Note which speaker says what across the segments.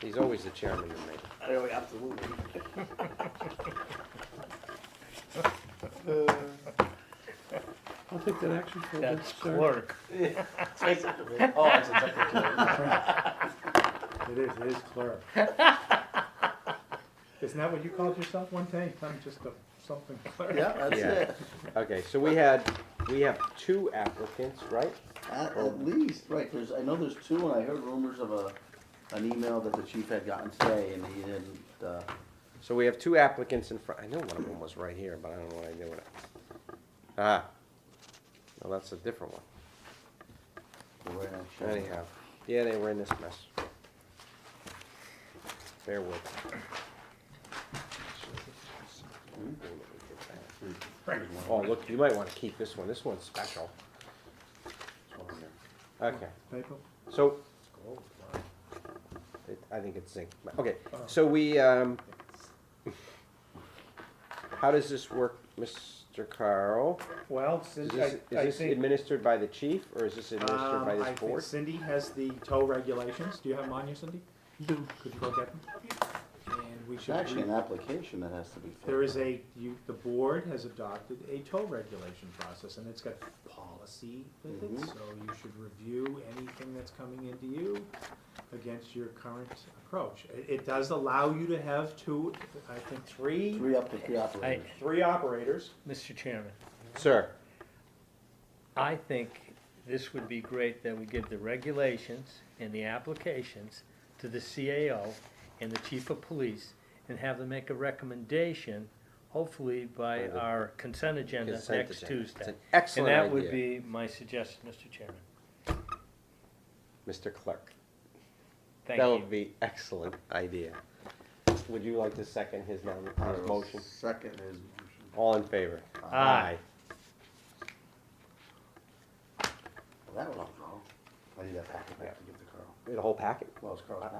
Speaker 1: He's always the chairman of me.
Speaker 2: Oh, absolutely.
Speaker 3: I'll take that action for this,
Speaker 4: That's
Speaker 3: sir.
Speaker 4: clerk.
Speaker 2: Oh, it's a technical.
Speaker 5: It is, it is clerk. Isn't that what you called yourself one time? I'm just a something clerk.
Speaker 2: Yeah, that's
Speaker 1: Yeah.
Speaker 2: it.
Speaker 1: Okay, so we had, we have two applicants, right?
Speaker 2: At, at least, right, there's, I know there's two, and I heard rumors of a, an email that the chief had gotten today, and he didn't, uh,
Speaker 1: So we have two applicants in front, I know one of them was right here, but I don't know what I did with it. Ah, well, that's a different one.
Speaker 2: the right on show.
Speaker 1: Anyhow, yeah, they were in this mess. Bear with me. Oh, look, you might wanna keep this one, this one's special. Okay.
Speaker 5: Typo?
Speaker 1: So. It- I think it's zinc. Okay,
Speaker 5: Oh.
Speaker 1: so we, um, how does this work, Mr. Carl?
Speaker 5: Well,
Speaker 1: Is
Speaker 5: Cindy, I,
Speaker 1: this, is
Speaker 5: I
Speaker 1: this
Speaker 5: think,
Speaker 1: administered by the chief or is this administered
Speaker 5: um,
Speaker 1: by
Speaker 5: I
Speaker 1: this
Speaker 5: think
Speaker 1: board?
Speaker 5: Cindy has the tow regulations. Do you have them on you, Cindy?
Speaker 3: Do.
Speaker 5: Could you go get them? And we
Speaker 2: It's
Speaker 5: should.
Speaker 2: actually
Speaker 5: re-
Speaker 2: an application that has to be filled.
Speaker 5: There is a, you, the board has adopted a toll regulation process, and it's got policy with it,
Speaker 1: Mm-hmm.
Speaker 2: Mhm.
Speaker 5: so you should review anything that's coming into you against your current approach. It, it does allow you to have two, I think, three,
Speaker 2: Three up to three operators.
Speaker 5: three operators.
Speaker 4: Mr. Chairman,
Speaker 1: Sir,
Speaker 4: I think this would be great that we give the regulations and the applications to the CAO and the chief of police and have them make a recommendation, hopefully by
Speaker 1: By the
Speaker 4: our consent agenda
Speaker 1: consent
Speaker 4: next
Speaker 1: agenda. It's
Speaker 4: Tuesday.
Speaker 1: an excellent
Speaker 4: And that would
Speaker 1: idea,
Speaker 4: be my suggestion, Mr. Chairman.
Speaker 1: Mr. Clerk.
Speaker 4: Thank
Speaker 1: That
Speaker 4: you.
Speaker 1: would be excellent idea. Would you like to second his nom, his motion?
Speaker 2: Second is motion.
Speaker 1: All in favor?
Speaker 4: Aye.
Speaker 2: That was all Carl. I need that packet back to give to Carl.
Speaker 1: The whole packet?
Speaker 2: Well, it's Carl's packet.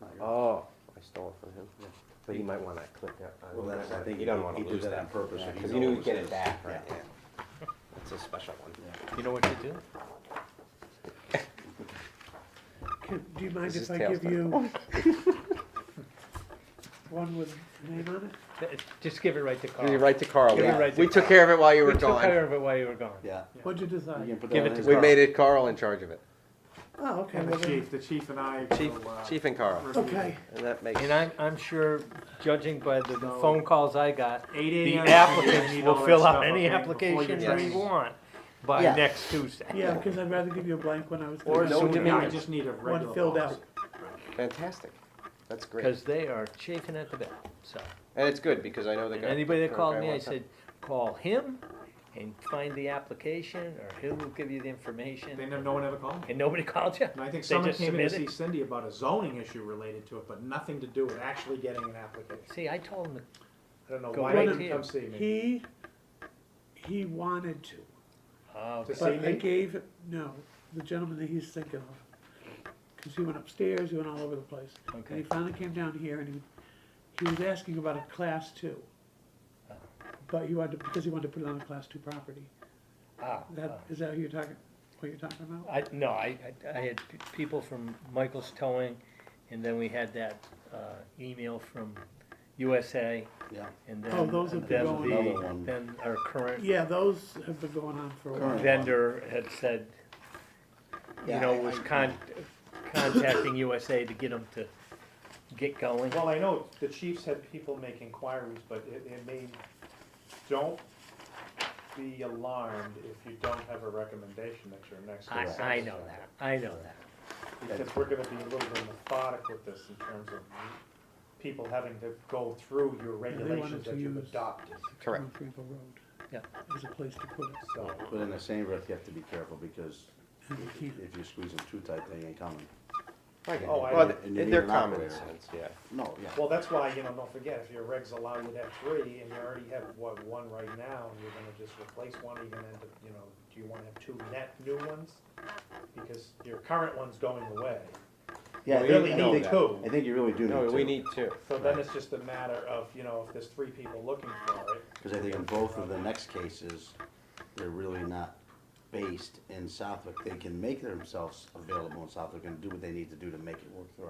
Speaker 2: not yours.
Speaker 1: Oh, I stole it from him.
Speaker 2: Yeah.
Speaker 1: But he might want that clip. yeah, I
Speaker 2: Well,
Speaker 1: don't
Speaker 2: that's, I
Speaker 1: know.
Speaker 2: think
Speaker 1: You don't want
Speaker 2: he
Speaker 1: to
Speaker 2: did
Speaker 1: lose
Speaker 2: that on
Speaker 1: that.
Speaker 2: purpose. if
Speaker 1: Because you knew
Speaker 2: it
Speaker 1: you'd
Speaker 2: was
Speaker 1: get it
Speaker 2: his.
Speaker 1: back, right?
Speaker 2: Yeah.
Speaker 1: yeah. That's a special one.
Speaker 2: Oh.
Speaker 4: You know what to do?
Speaker 3: Can, do you mind
Speaker 1: This
Speaker 3: if
Speaker 1: is
Speaker 3: I
Speaker 1: tails
Speaker 3: give you one with name on it?
Speaker 4: Th- Just give it right to Carl.
Speaker 1: You write to Carl.
Speaker 4: Give it
Speaker 1: yeah.
Speaker 4: right to
Speaker 1: We took
Speaker 4: Carl.
Speaker 1: care of it while you were
Speaker 4: We took
Speaker 1: gone.
Speaker 4: care of it while you were gone.
Speaker 2: Yeah.
Speaker 3: What'd you
Speaker 2: You can
Speaker 3: decide?
Speaker 2: put
Speaker 4: Give
Speaker 2: that
Speaker 4: it
Speaker 2: on
Speaker 4: to
Speaker 2: his-
Speaker 1: We
Speaker 4: Carl.
Speaker 1: made it Carl in charge of it.
Speaker 3: Oh, okay,
Speaker 5: And
Speaker 3: well
Speaker 5: the
Speaker 3: then,
Speaker 5: chief, the chief and I
Speaker 1: Chief,
Speaker 5: will, uh,
Speaker 1: Chief and Carl.
Speaker 5: review.
Speaker 3: okay.
Speaker 1: And that makes,
Speaker 4: And I'm, I'm sure, judging by the
Speaker 5: No.
Speaker 4: phone calls I got,
Speaker 5: Eight
Speaker 4: the
Speaker 5: AM.
Speaker 4: applicants
Speaker 5: You
Speaker 4: will
Speaker 5: need all
Speaker 4: fill
Speaker 5: that
Speaker 4: out
Speaker 5: stuff,
Speaker 4: any
Speaker 5: okay, before your
Speaker 4: application they
Speaker 5: training.
Speaker 4: want by
Speaker 2: Yeah.
Speaker 4: next Tuesday.
Speaker 3: Yeah, because I'd rather give you a blank one. I was
Speaker 5: Or
Speaker 3: gonna
Speaker 1: No
Speaker 5: Zoom, yeah, I
Speaker 1: diminutive.
Speaker 5: just need a regular.
Speaker 3: one filled
Speaker 5: policy.
Speaker 3: out.
Speaker 1: fantastic. That's great.
Speaker 4: Because they are chafing at the bit, so.
Speaker 1: And it's good because I know the
Speaker 4: And
Speaker 1: guy.
Speaker 4: anybody that
Speaker 1: the
Speaker 4: called
Speaker 1: guy
Speaker 4: me, I
Speaker 1: wants that.
Speaker 4: said, call him and find the application, or he will give you the
Speaker 5: They
Speaker 4: information.
Speaker 5: never, no one ever called me.
Speaker 4: And nobody called you?
Speaker 5: And I think
Speaker 4: They
Speaker 5: someone
Speaker 4: just
Speaker 5: came in to see
Speaker 4: submitted?
Speaker 5: Cindy about a zoning issue related to it, but nothing to do with actually getting an application.
Speaker 4: See, I told them,
Speaker 5: I don't know
Speaker 4: Go
Speaker 5: why
Speaker 3: right
Speaker 5: they didn't
Speaker 4: here.
Speaker 5: come see me.
Speaker 3: He, he wanted to,
Speaker 4: oh,
Speaker 5: Just-
Speaker 3: but
Speaker 5: See
Speaker 3: I
Speaker 5: me?
Speaker 3: gave, no, the gentleman that he's thinking of. Because he went upstairs, he went all over the place. And he
Speaker 4: okay,
Speaker 3: finally came down here and he, he was asking about a class two. But he wanted, to- because he wanted to put it on a class two property.
Speaker 4: ah,
Speaker 3: That, is that who you're talking, what you're talking about?
Speaker 4: I, no, I, I- I had p- people from Michael's Towing, and then we had that, uh, email from USA,
Speaker 2: Yeah.
Speaker 4: and then.
Speaker 3: Oh, those have been
Speaker 4: then
Speaker 3: going
Speaker 4: the-
Speaker 2: Another one.
Speaker 4: Then our current
Speaker 3: Yeah, those have been going on for a while.
Speaker 2: Current.
Speaker 4: vendor had said, you
Speaker 2: Yeah,
Speaker 4: know,
Speaker 2: I-
Speaker 4: was
Speaker 2: I-
Speaker 4: con- contacting USA to get them to get going.
Speaker 5: Well, I know the chiefs had people make inquiries, but it, it may, don't be alarmed if you don't have a recommendation at your next.
Speaker 4: I,
Speaker 5: consensus
Speaker 4: I know
Speaker 5: meeting.
Speaker 4: that, I know that.
Speaker 5: Because we're gonna be a little bit methodic with this in terms of people having to go through your
Speaker 3: they wanted
Speaker 5: regulations
Speaker 3: to
Speaker 5: that you've
Speaker 3: use-
Speaker 5: adopted,
Speaker 1: Correct.
Speaker 4: "Mm."
Speaker 3: North Greenville Road.
Speaker 4: Yeah.
Speaker 3: There's a place to put it,
Speaker 5: so.
Speaker 2: But in the same breath, you have to be careful because
Speaker 3: and you can't.
Speaker 2: if you squeeze them too tight, they ain't coming.
Speaker 1: I get
Speaker 5: Oh,
Speaker 1: it.
Speaker 5: I-
Speaker 1: Well,
Speaker 5: and
Speaker 2: you
Speaker 1: th-
Speaker 2: need
Speaker 1: they're
Speaker 2: an
Speaker 1: common
Speaker 2: operator.
Speaker 1: sense, yeah.
Speaker 2: No, yeah.
Speaker 5: Well, that's why, you know, don't forget, if your regs allow you to have three, and you already have, what, one right now, and you're gonna just replace one, you're gonna end up, you know, do you wanna have two net new ones? Because your current one's going away,
Speaker 2: Yeah, I
Speaker 5: We
Speaker 2: think-
Speaker 5: really
Speaker 2: I think-
Speaker 5: need two.
Speaker 2: I think you really do need
Speaker 1: No,
Speaker 2: two.
Speaker 1: we need two.
Speaker 5: so then it's just a matter of, you know, if there's three people looking for it,
Speaker 2: Because I think in both of the next cases, they're really not based in Southwick. They can make themselves available in Southwick and do what they need to do to make it work through